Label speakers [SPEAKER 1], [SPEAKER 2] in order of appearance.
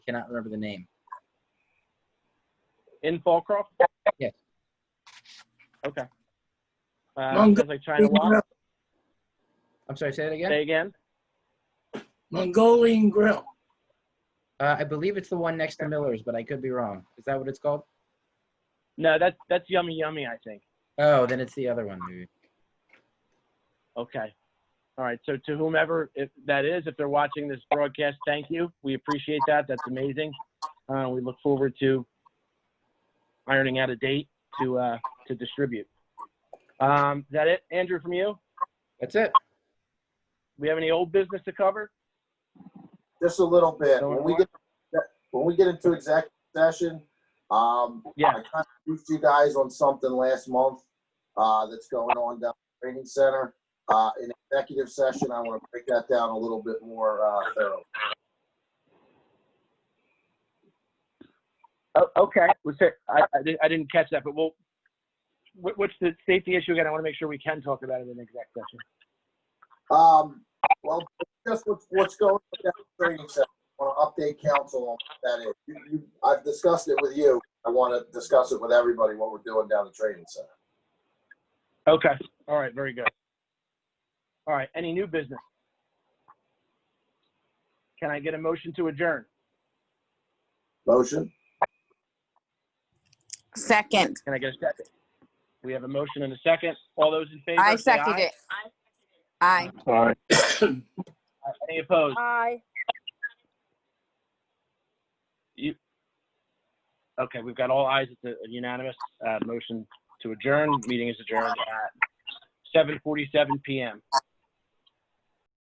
[SPEAKER 1] cannot remember the name.
[SPEAKER 2] in Fallcroft?
[SPEAKER 1] Yes.
[SPEAKER 2] Okay.
[SPEAKER 3] Long
[SPEAKER 2] Uh, sounds like China Walk.
[SPEAKER 1] I'm sorry, say that again?
[SPEAKER 2] Say again.
[SPEAKER 3] Mongolian Grill.
[SPEAKER 1] Uh, I believe it's the one next to Miller's, but I could be wrong. Is that what it's called?
[SPEAKER 2] No, that's that's yummy, yummy. I think.
[SPEAKER 1] Oh, then it's the other one, maybe.
[SPEAKER 2] Okay. All right. So to whomever if that is, if they're watching this broadcast, thank you. We appreciate that. That's amazing. Uh, we look forward to ironing out a date to uh, to distribute. Um, is that it, Andrew? From you?
[SPEAKER 1] That's it.
[SPEAKER 2] We have any old business to cover?
[SPEAKER 4] Just a little bit.
[SPEAKER 2] No
[SPEAKER 4] When we
[SPEAKER 2] more?
[SPEAKER 4] get, when we get into executive session, um,
[SPEAKER 2] Yeah.
[SPEAKER 4] I kind of briefed you guys on something last month, uh, that's going on down at the training center. Uh, in executive session, I want to break that down a little bit more, uh, thoroughly.
[SPEAKER 2] Oh, okay. Was there, I, I, didn't, I didn't catch that, but we'll. What, what's the safety issue again? I want to make sure we can talk about it in exec session.
[SPEAKER 4] Um, well, just what's, what's going on down at the training center. I want to update council on what that is. You, you, I've discussed it with you. I want to discuss it with everybody, what we're doing down at the training center.
[SPEAKER 2] Okay. All right. Very good. All right. Any new business? Can I get a motion to adjourn?
[SPEAKER 4] Motion?
[SPEAKER 5] Second.
[SPEAKER 2] Can I get a second? We have a motion and a second. All those in favor?
[SPEAKER 5] I
[SPEAKER 2] say
[SPEAKER 5] seconded
[SPEAKER 2] aye.
[SPEAKER 5] it. Aye.
[SPEAKER 2] Any opposed?
[SPEAKER 5] Aye.
[SPEAKER 2] Okay, we've got all ayes. It's a unanimous uh, motion to adjourn. Meeting is adjourned at 7:47 PM.